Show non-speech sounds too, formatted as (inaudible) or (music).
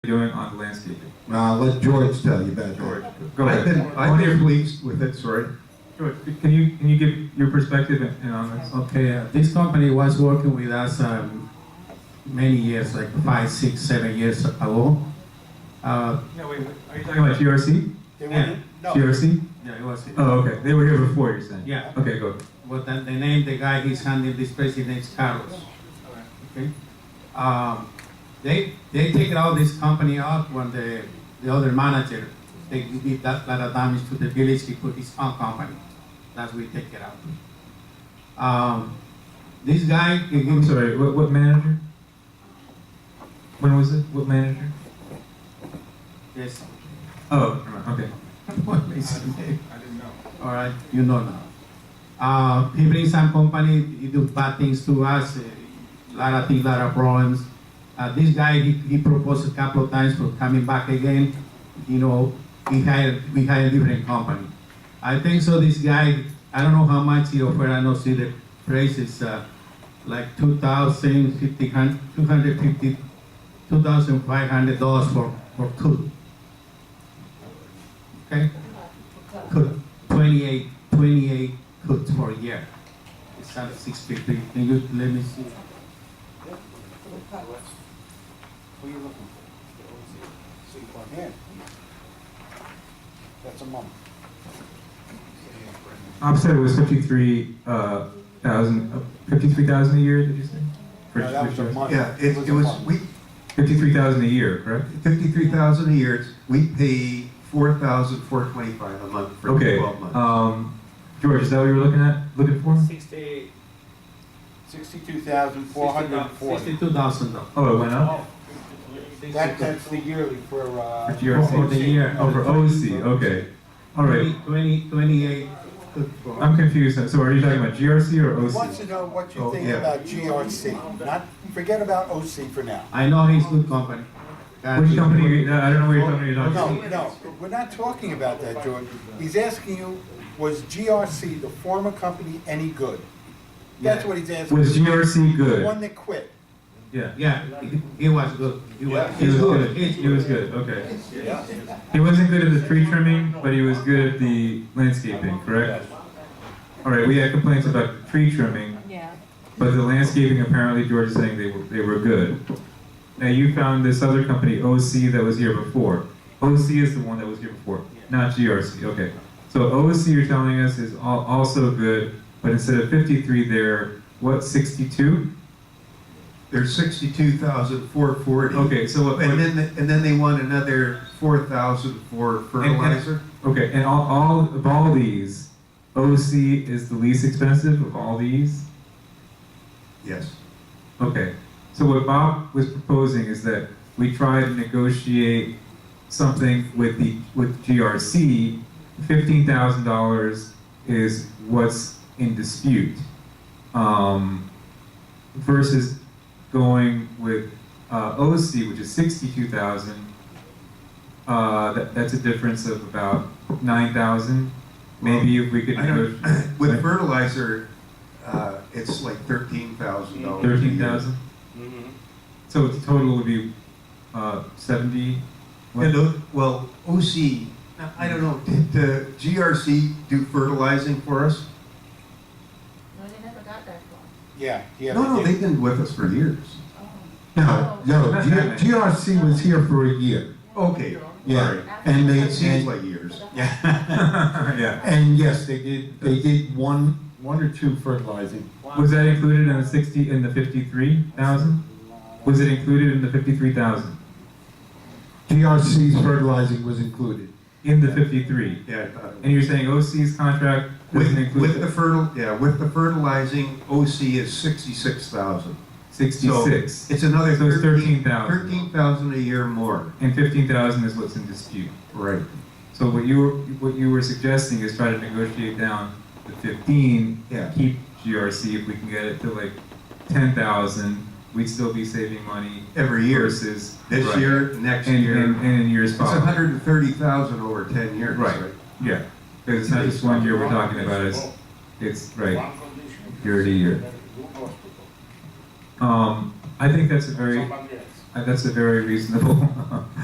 doing on landscaping? Now, I'll Uh, let George tell you about George, that. go I've been, ahead. I've been pleased with it, sorry. George, can you, can you give your perspective and- and on this? Okay, uh, this company was working with us um, many years, like five, six, seven years ago. Uh, No, wait, are you talking about GRC? They Yeah. wouldn't, no, GRC? yeah, it was. Oh, okay, they were here before, you're saying? Yeah. Okay, go. But the, the name, the guy, he's handling this president's Carlos. Okay. Um, they they take all this company out when the the other manager they did that lot of damage to the village. He put his own company. That's we take it out. Um, this guy, he I'm gives sorry, what, what manager? When was it? What manager? yes. Oh, never mind, okay. What is his name? All right, you know now. Uh, he brings some company, he do bad things to us, eh, a lot of things, lot of problems. Uh, this guy, he, he proposed a couple of times for coming back again. You know, he hired, we hired different company. I think so. This guy, I don't know how much he offered. I know see the price is uh, like two thousand fifty hundred, two hundred fifty, two thousand five hundred dollars for for two. Okay, cook 28, 28 cooks for a year. It's not six fifty. Can you let me see? who you looking for? See, plug in. That's a month. Offset was fifty-three, uh, thousand, fifty-three thousand a year, did you say? No, that was a month. Yeah, it, it was, we, Fifty-three thousand a year, correct? fifty-three thousand a year, It's- we pay four thousand four twenty-five a month for Okay, twelve months. um, George, is that what you were looking at, looking for? Sixty-eight. Sixty-two thousand, four hundred and forty. Sixty-two thousand dollars. Oh, it went up? That, that's the yearly for, uh. For GRC. For the year. Oh, for OC, okay. All right, 20, 28 cooks for. I'm confused. now. So are you talking about GRC or He Wants OC? to know what Oh, you think yeah. about GRC, not, forget about OC for now. I know he's good company. God, Which he's company, good. you- no, I don't know what you're talking about. No, no, we're not talking about that, George. He's asking you, was GRC, the former company, any good? That's Yeah. what he's asking. Was GRC The good? one that quit. Yeah, Yeah, he, he was good. He was, Yeah. he was he's good. good. He's He was good, okay. Yeah. He wasn't good at the tree trimming, but he was good at the landscaping, correct? All right, we had complaints about the tree trimming, Yeah. but the landscaping, apparently George is saying they were, they were good. Now you found this other company, OC, that was here before. OC is the one that was here before, not GRC, okay. So OC, you're telling us, is al- also good, but instead of fifty-three there, what, sixty-two? There's sixty-two thousand four forty. Okay, so what, And then, and then they want another four thousand for fertilizer. okay, and all, all of all these, OC is the least expensive of all these. Yes. Okay, so what Bob was proposing is that we try to negotiate something with the with GRC. Fifteen thousand dollars is what's in dispute, um, versus going with uh, OC, which is sixty-two thousand. Uh, that, that's a difference of about nine thousand. Maybe if we could I don't- negotiate (coughs) With fertilizer, uh, it's like thirteen thousand dollars. thirteen thousand. So the total would be uh, 70. What? And, O- well, OC, now, I don't know, did the GRC do fertilizing for us? No, they never got that far. Yeah, yeah. No, no, did. they've been with us for years. No, Uh, no, G- GRC was here for a year, Okay, all yeah, right. and they, It seems and, like years. (laughs) yeah. and yes, they did, they did one, one or two fertilizing. Was that included in the 60 in the 53,000? Was it included in the 53,000? GRC's fertilizing was included. In the 53. Yeah, I thought it And you're saying OC's contract was. doesn't With, with include the fertil, yeah, with the fertilizing, OC is sixty-six thousand. 66. It's another So it's thirteen, 13,000. thirteen thousand a year more. and 15,000 is what's in dispute. Right. So what you were what you were suggesting is try to negotiate down the 15 Yeah. keep GRC if we can get it to like 10,000, we'd still be saving money Every year, versus this Right. year, next and, and, year. and in years It's following. hundred and thirty thousand over ten years. Right. Yeah, because it's not just one year we're talking about, it's, it's, right, year to year. Um, I think that's a very, Uh, That's a very reasonable (laughs)